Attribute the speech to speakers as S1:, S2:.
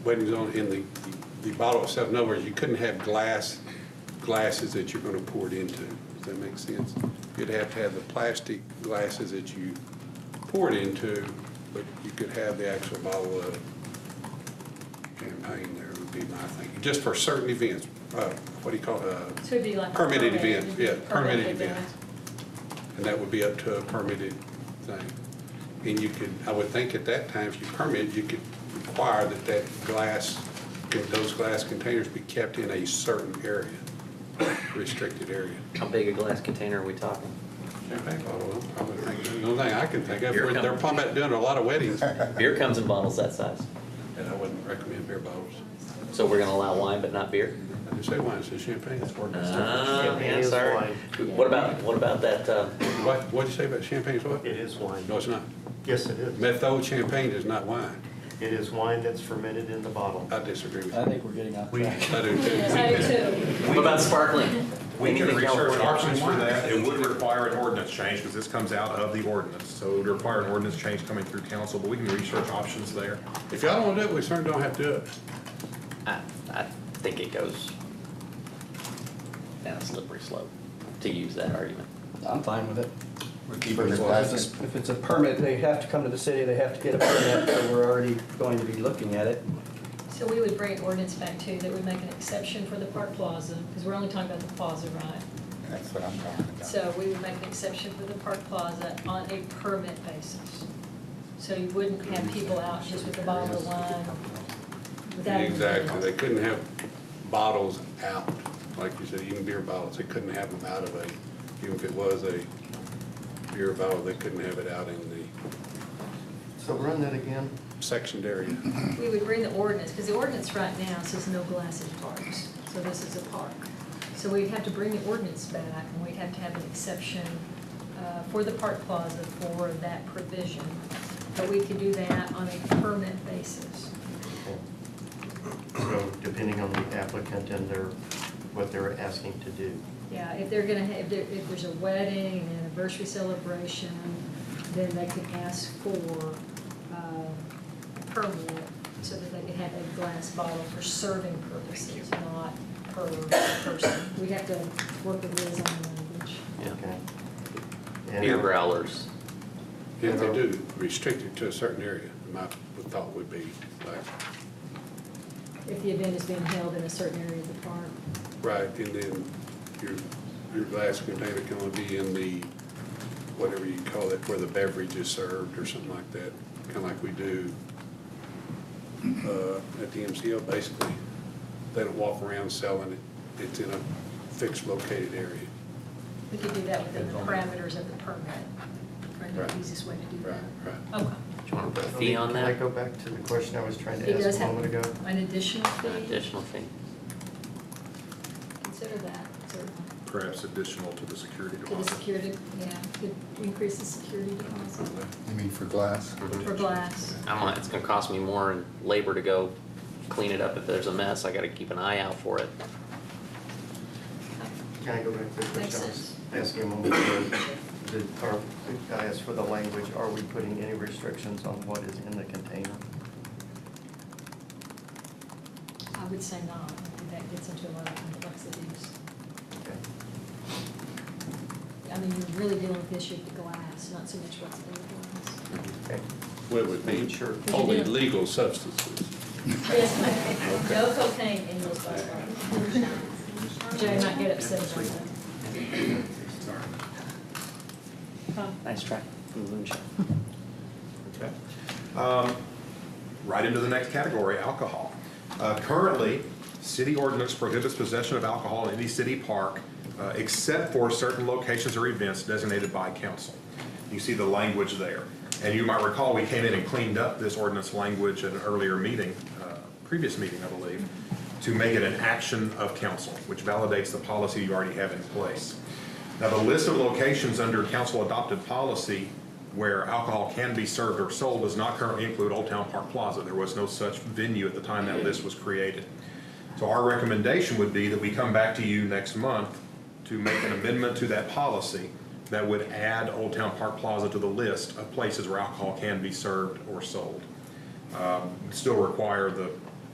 S1: waiting zone in the, the bottle itself, in other words, you couldn't have glass, glasses that you're gonna pour it into. Does that make sense? You'd have to have the plastic glasses that you pour it into, but you could have the actual bottle of champagne there would be my thinking, just for certain events, uh, what do you call, it, uh,
S2: So it'd be like. a
S1: Permitted
S2: permit.
S1: events, yeah, permitted
S2: event.
S1: events. And that would be up to a permitted thing. And you could, I would think at that time, if you permit, you could require that that glass, that those glass containers be kept in a certain area, restricted area.
S3: How big a glass container are we talking?
S1: Champagne bottle, I would think, the only thing I can think of,
S3: Here it
S1: they're
S3: comes.
S1: probably about doing a lot of weddings, and
S3: Beer comes in bottles that size.
S1: I wouldn't recommend beer bottles.
S3: So we're gonna allow wine but not beer?
S1: I didn't say wine, I said champagne.
S3: Ah,
S4: Champagne
S3: yeah,
S4: is
S3: sorry.
S4: wine.
S3: What about, what about that, uh,
S1: What, what'd you say about champagne, is what?
S4: It is wine.
S1: No, it's not.
S4: Yes, it is.
S1: Methode champagne is not wine.
S4: It is wine that's fermented in the bottle.
S1: I disagree with
S5: I
S1: you.
S5: think we're getting off
S4: We-
S5: track.
S1: I do too.
S2: So too.
S3: what about sparkling?
S6: We can
S3: Anything
S6: research
S3: California?
S6: options for that. It would require an ordinance change because this comes out of the ordinance. So it would require an ordinance change coming through council, but we can research options there.
S1: If y'all don't want to do it, we certainly don't have to do it.
S3: I, I think it goes down a slippery slope to use that argument.
S5: I'm fine with it.
S7: We're
S5: If
S7: keeping the
S5: it's
S7: glass,
S5: a- if it's a permit, they have to come to the city, they have to get a permit, so we're already going to be looking at it.
S2: So we would bring an ordinance back too, that would make an exception for the park plaza, because we're only talking about the plaza, right?
S7: that's what I'm talking about.
S2: So we would make an exception for the park plaza on a permit basis. So you wouldn't have people out just with a bottle of wine without. even-
S1: Exactly. They couldn't have bottles out, like you said, even beer bottles. They couldn't have them out of a, even if it was a beer bottle, they couldn't have it out in the
S4: So run that again.
S1: sectioned area.
S2: We would bring the ordinance, because the ordinance right now says no glass in parks, so this is a park. So we'd have to bring the ordinance back, and we'd have to have an exception uh, for the park plaza for that provision. But we could do that on a permit basis.
S4: So depending on the applicant and their, what they're asking to do.
S2: Yeah, if they're gonna, ha- if there, if there's a wedding, an anniversary celebration, then they can ask for, uh, a permit so that they can have a glass bottle for serving purposes, not per person. We have to work with Liz on the language.
S3: Yeah.
S4: Okay. And- uh,
S3: Beer growlers.
S1: If they do, restrict it to a certain area. My thought would be like,
S2: If the event is being held in a certain area of the park.
S1: right, and then your, your glass container can only be in the, whatever you call it, where the beverage is served or something like that. Kind of like we do uh, at the MCO, basically. They don't walk around selling it. It's in a fixed located area.
S2: We could do that within the parameters of the permit, probably the
S1: Right.
S2: easiest way to do
S1: Right,
S2: that.
S1: right.
S2: Okay.
S3: Do you wanna put a
S4: I mean,
S3: fee on
S4: Can I
S3: that?
S4: go back to the question I was trying
S2: He
S4: to
S2: does
S4: ask a
S2: have
S4: moment ago?
S2: an additional fee.
S3: An additional fee?
S2: Consider that, certainly.
S6: Perhaps additional to the security
S2: To the
S6: deposit.
S2: security, yeah, could increase the security deposit
S7: You mean for glass?
S2: for glass.
S3: I'm like, it's gonna cost me more in labor to go clean it up if there's a mess. I gotta keep an eye out for it.
S4: Can I go back to the
S2: Makes
S4: question I
S2: sense.
S4: was asking a moment ago? Did, are, I asked for the language, are we putting any restrictions on what is in the container?
S2: I would say not, I think that gets into a lot of complexities.
S4: Okay.
S2: I mean, you're really dealing with the issue of the glass, not so much what's in the
S4: Okay.
S1: Well, it would
S4: Making
S1: be
S4: sure.
S1: only legal substances.
S2: glass. Yes, ma'am, no cocaine in those glass bottles. Jay might get upset about that. Huh?
S3: Nice try. Moonshine.
S6: Okay. Um, Right into the next category, alcohol. Uh, Currently, city ordinance prohibits possession of alcohol in any city park uh, except for certain locations or events designated by council. You see the language there. And you might recall, we came in and cleaned up this ordinance language at an earlier meeting, uh, previous meeting, I believe, to make it an action of council, which validates the policy you already have in place. Now, the list of locations under council-adopted policy where alcohol can be served or sold does not currently include Old Town Park Plaza. There was no such venue at the time that list was created. So our recommendation would be that we come back to you next month to make an amendment to that policy that would add Old Town Park Plaza to the list of places where alcohol can be served or sold. Um, Still require the